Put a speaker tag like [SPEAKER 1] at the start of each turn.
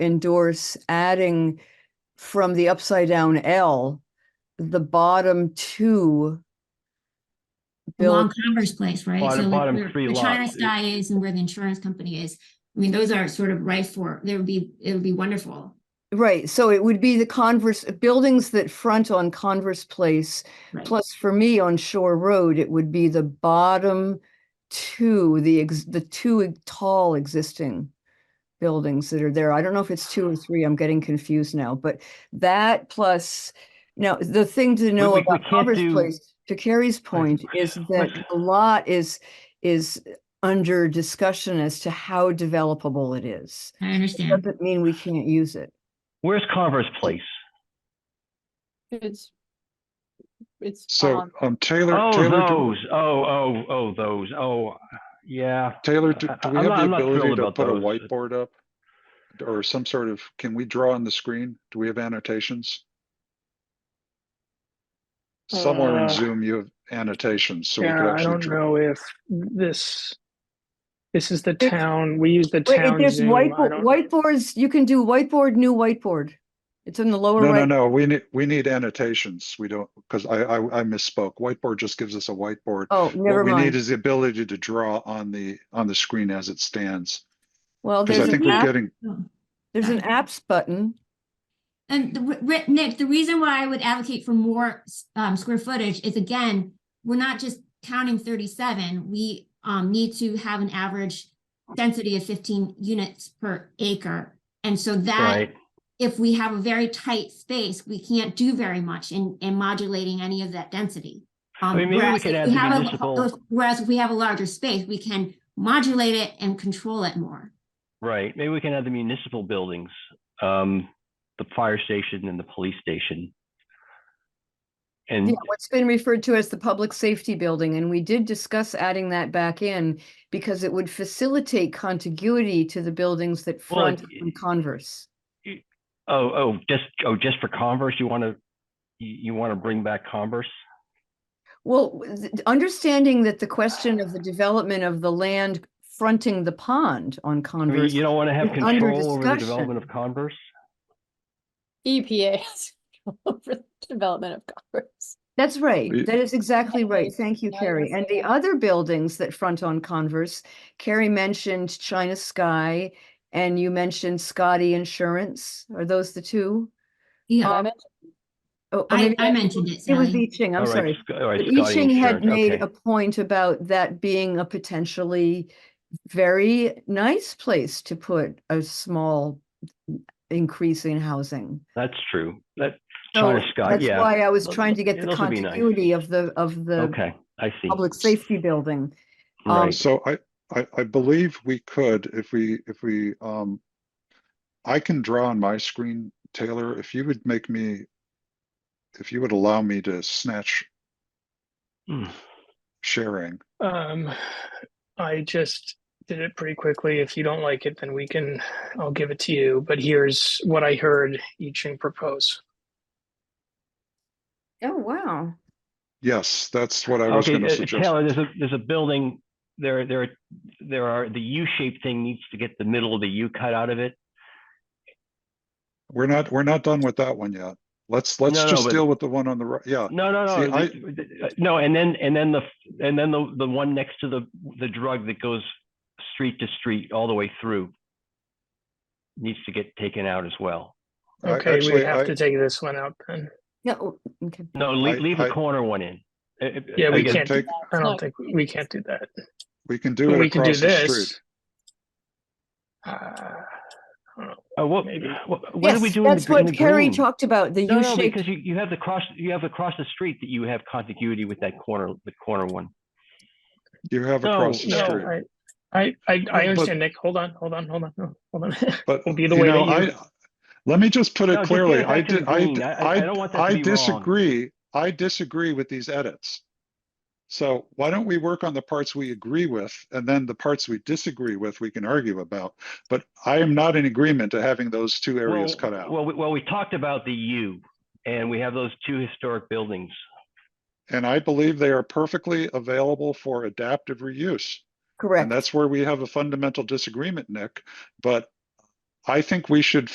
[SPEAKER 1] endorse adding from the upside down L, the bottom two. build.
[SPEAKER 2] Along Commerce Place, right?
[SPEAKER 3] Bottom-
[SPEAKER 2] So like
[SPEAKER 3] bottom
[SPEAKER 2] where-
[SPEAKER 3] three
[SPEAKER 2] where China
[SPEAKER 3] lots.
[SPEAKER 2] Sky is and where the insurance company is. I mean, those are sort of ripe for, there would be, it would be wonderful.
[SPEAKER 1] Right, so it would be the Converse, buildings that front on Converse Place.
[SPEAKER 2] Right.
[SPEAKER 1] Plus, for me, on Shore Road, it would be the bottom two, the ex, the two e, tall existing buildings that are there. I don't know if it's two or three, I'm getting confused now, but that plus, now, the thing to know
[SPEAKER 3] we- we
[SPEAKER 1] about
[SPEAKER 3] can't
[SPEAKER 1] Converse
[SPEAKER 3] do-
[SPEAKER 1] Place, to Carrie's point, is that a lot is, is under discussion as to how developable it is.
[SPEAKER 2] I understand.
[SPEAKER 1] Doesn't mean we can't use it.
[SPEAKER 3] Where's Converse Place?
[SPEAKER 4] It's, it's
[SPEAKER 5] So,
[SPEAKER 4] on-
[SPEAKER 5] um, Taylor,
[SPEAKER 3] Oh,
[SPEAKER 5] Taylor, do-
[SPEAKER 3] those. Oh, oh, oh, those. Oh, yeah.
[SPEAKER 5] Taylor, do
[SPEAKER 3] I-
[SPEAKER 5] do we
[SPEAKER 3] I'm
[SPEAKER 5] have
[SPEAKER 3] not-
[SPEAKER 5] the
[SPEAKER 3] I'm not
[SPEAKER 5] ability
[SPEAKER 3] thrilled
[SPEAKER 5] to
[SPEAKER 3] about
[SPEAKER 5] put a
[SPEAKER 3] those.
[SPEAKER 5] whiteboard up? Or some sort of, can we draw on the screen? Do we have annotations? Somewhere
[SPEAKER 6] Uh,
[SPEAKER 5] in Zoom you have annotations, so we could
[SPEAKER 6] Yeah, I
[SPEAKER 5] actually
[SPEAKER 6] don't
[SPEAKER 5] draw.
[SPEAKER 6] know if this, this is the
[SPEAKER 1] It's-
[SPEAKER 6] town, we use the
[SPEAKER 1] Wait, if
[SPEAKER 6] town
[SPEAKER 1] there's
[SPEAKER 6] Zoom. I
[SPEAKER 1] whiteboard,
[SPEAKER 6] don't-
[SPEAKER 1] whiteboards, you can do whiteboard, new whiteboard. It's in the lower
[SPEAKER 5] No, no,
[SPEAKER 1] right.
[SPEAKER 5] no, we need, we need annotations. We don't, because I, I, I misspoke. Whiteboard just gives us a whiteboard.
[SPEAKER 1] Oh, never
[SPEAKER 5] What we need
[SPEAKER 1] mind.
[SPEAKER 5] is the ability to draw on the, on the screen as it stands.
[SPEAKER 1] Well,
[SPEAKER 5] Because I
[SPEAKER 1] there's
[SPEAKER 5] think
[SPEAKER 1] an
[SPEAKER 5] we're
[SPEAKER 1] app,
[SPEAKER 5] getting,
[SPEAKER 1] there's an apps button.
[SPEAKER 2] And the, re- re- Nick, the reason why I would advocate for more um, square footage is again, we're not just counting thirty-seven. We um, need to have an average density of fifteen units per acre. And so that
[SPEAKER 3] Right.
[SPEAKER 2] if we have a very tight space, we can't do very much in, in modulating any of that density. Um,
[SPEAKER 3] mean, maybe we
[SPEAKER 2] whereas
[SPEAKER 3] could
[SPEAKER 2] if
[SPEAKER 3] add
[SPEAKER 2] we
[SPEAKER 3] the
[SPEAKER 2] have a-
[SPEAKER 3] municipal-
[SPEAKER 2] if- Whereas if we have a larger space, we can modulate it and control it more.
[SPEAKER 3] Right. Maybe we can have the municipal buildings, um, the fire station and the police station.
[SPEAKER 1] Yeah,
[SPEAKER 5] Mm-hmm.
[SPEAKER 3] And
[SPEAKER 1] what's been referred to as the public safety building, and we did discuss adding that back in because it would facilitate contiguity to the buildings that
[SPEAKER 3] Well, it-
[SPEAKER 1] front on Converse.
[SPEAKER 3] oh, oh, just oh, just for Converse, you want to you, you want to bring back Converse?
[SPEAKER 1] Well, w- th- understanding that the question of the development of the land fronting the pond on
[SPEAKER 3] I mean,
[SPEAKER 1] Converse.
[SPEAKER 3] you don't want to have
[SPEAKER 1] It's under
[SPEAKER 3] control over the
[SPEAKER 1] discussion.
[SPEAKER 3] development of Converse.
[SPEAKER 4] EPA has control over the development of Congress.
[SPEAKER 1] That's right.
[SPEAKER 5] Y-
[SPEAKER 1] That is exactly right.
[SPEAKER 4] Yes,
[SPEAKER 1] Thank you,
[SPEAKER 4] now you're
[SPEAKER 1] Carrie. And the
[SPEAKER 4] saying-
[SPEAKER 1] other buildings that front on Converse, Carrie mentioned China Sky and you mentioned Scotty Insurance. Are those the two?
[SPEAKER 4] Did I
[SPEAKER 2] Yeah,
[SPEAKER 4] mention-
[SPEAKER 1] Oh, or
[SPEAKER 2] I,
[SPEAKER 1] maybe
[SPEAKER 2] I mentioned it,
[SPEAKER 1] It was
[SPEAKER 2] Sally.
[SPEAKER 1] I Ching, I'm
[SPEAKER 3] All right,
[SPEAKER 1] sorry.
[SPEAKER 3] Sc- All right.
[SPEAKER 1] But I
[SPEAKER 3] Scotty
[SPEAKER 1] Ching had
[SPEAKER 3] Insurance,
[SPEAKER 1] made
[SPEAKER 3] okay.
[SPEAKER 1] a point about that being a potentially very nice place to put a small increase in housing.
[SPEAKER 3] That's true. That
[SPEAKER 1] So
[SPEAKER 3] China Sky,
[SPEAKER 1] that's
[SPEAKER 3] yeah.
[SPEAKER 1] why I was
[SPEAKER 3] Those-
[SPEAKER 1] trying to get the
[SPEAKER 3] those would be nice.
[SPEAKER 1] continuity of the, of the
[SPEAKER 3] Okay, I see.
[SPEAKER 1] public safety building. um,
[SPEAKER 3] Right.
[SPEAKER 5] So I, I, I believe we could, if we, if we, um, I can draw on my screen, Taylor, if you would make me, if you would allow me to snatch
[SPEAKER 3] Hmm.
[SPEAKER 5] sharing.
[SPEAKER 6] Um, I just did it pretty quickly. If you don't like it, then we can, I'll give it to you, but here's what I heard Yiching propose.
[SPEAKER 1] Oh, wow.
[SPEAKER 5] Yes, that's what I was
[SPEAKER 3] Okay,
[SPEAKER 5] gonna
[SPEAKER 3] uh,
[SPEAKER 5] suggest.
[SPEAKER 3] Taylor, there's a, there's a building, there, there, there are, the U-shaped thing needs to get the middle of the U cut out of it.
[SPEAKER 5] We're not, we're not done with that one yet. Let's, let's
[SPEAKER 3] No, no,
[SPEAKER 5] just
[SPEAKER 3] but-
[SPEAKER 5] deal with the one on the right. Yeah,
[SPEAKER 3] No, no,
[SPEAKER 5] See,
[SPEAKER 3] no,
[SPEAKER 5] I-
[SPEAKER 3] th- th- uh, no, and then, and then the, f- and then the, the one next to the, the drug that goes street to street all the way through needs to get taken out as well.
[SPEAKER 5] I-
[SPEAKER 6] Okay, we
[SPEAKER 5] actually,
[SPEAKER 6] would have
[SPEAKER 5] I-
[SPEAKER 6] to take this one out then.
[SPEAKER 1] No, okay.
[SPEAKER 3] No,
[SPEAKER 5] I-
[SPEAKER 3] leave, leave
[SPEAKER 5] I-
[SPEAKER 3] the corner one in. Uh, uh,
[SPEAKER 6] Yeah, we
[SPEAKER 3] again,
[SPEAKER 6] can't do
[SPEAKER 5] take-
[SPEAKER 6] that.
[SPEAKER 4] It's
[SPEAKER 6] I
[SPEAKER 4] not
[SPEAKER 6] don't think, we can't do that.
[SPEAKER 5] we can do
[SPEAKER 6] But
[SPEAKER 5] it
[SPEAKER 6] we can do
[SPEAKER 5] across the
[SPEAKER 6] this.
[SPEAKER 5] street.
[SPEAKER 6] Uh, I don't know.
[SPEAKER 3] uh, What,
[SPEAKER 6] Maybe.
[SPEAKER 3] what what did we
[SPEAKER 1] Yes,
[SPEAKER 3] do in the?
[SPEAKER 1] That's
[SPEAKER 3] gr- in
[SPEAKER 1] what
[SPEAKER 3] the
[SPEAKER 1] Carrie
[SPEAKER 3] green?
[SPEAKER 1] talked about, the
[SPEAKER 3] No, no,
[SPEAKER 1] U-shaped
[SPEAKER 3] because you, you have the cross, you have across the street that you have contiguity with that corner, the corner one.
[SPEAKER 5] You have
[SPEAKER 3] No,
[SPEAKER 5] across the
[SPEAKER 3] no,
[SPEAKER 5] street.
[SPEAKER 6] No, I, I, I,
[SPEAKER 5] But-
[SPEAKER 6] I understand, Nick. Hold on, hold on, hold on, no, hold on.
[SPEAKER 5] But
[SPEAKER 6] will be
[SPEAKER 5] you
[SPEAKER 6] the way
[SPEAKER 5] know,
[SPEAKER 6] that you-
[SPEAKER 5] I, let me just put
[SPEAKER 3] No,
[SPEAKER 5] it
[SPEAKER 3] just get
[SPEAKER 5] clearly,
[SPEAKER 3] it
[SPEAKER 5] I
[SPEAKER 3] back to the
[SPEAKER 5] did, I,
[SPEAKER 3] green.
[SPEAKER 5] d-
[SPEAKER 3] I- I don't want that to
[SPEAKER 5] I
[SPEAKER 3] be wrong.
[SPEAKER 5] disagree, I disagree with these edits. So why don't we work on the parts we agree with, and then the parts we disagree with, we can argue about. But I am not in agreement to having those two areas
[SPEAKER 3] Well,
[SPEAKER 5] cut out,
[SPEAKER 3] Well, we, well, we talked about the U and we have those two historic buildings.
[SPEAKER 5] and I believe they are perfectly available for adaptive reuse. And
[SPEAKER 1] correct.
[SPEAKER 5] that's where we have a fundamental disagreement, Nick, but I think we should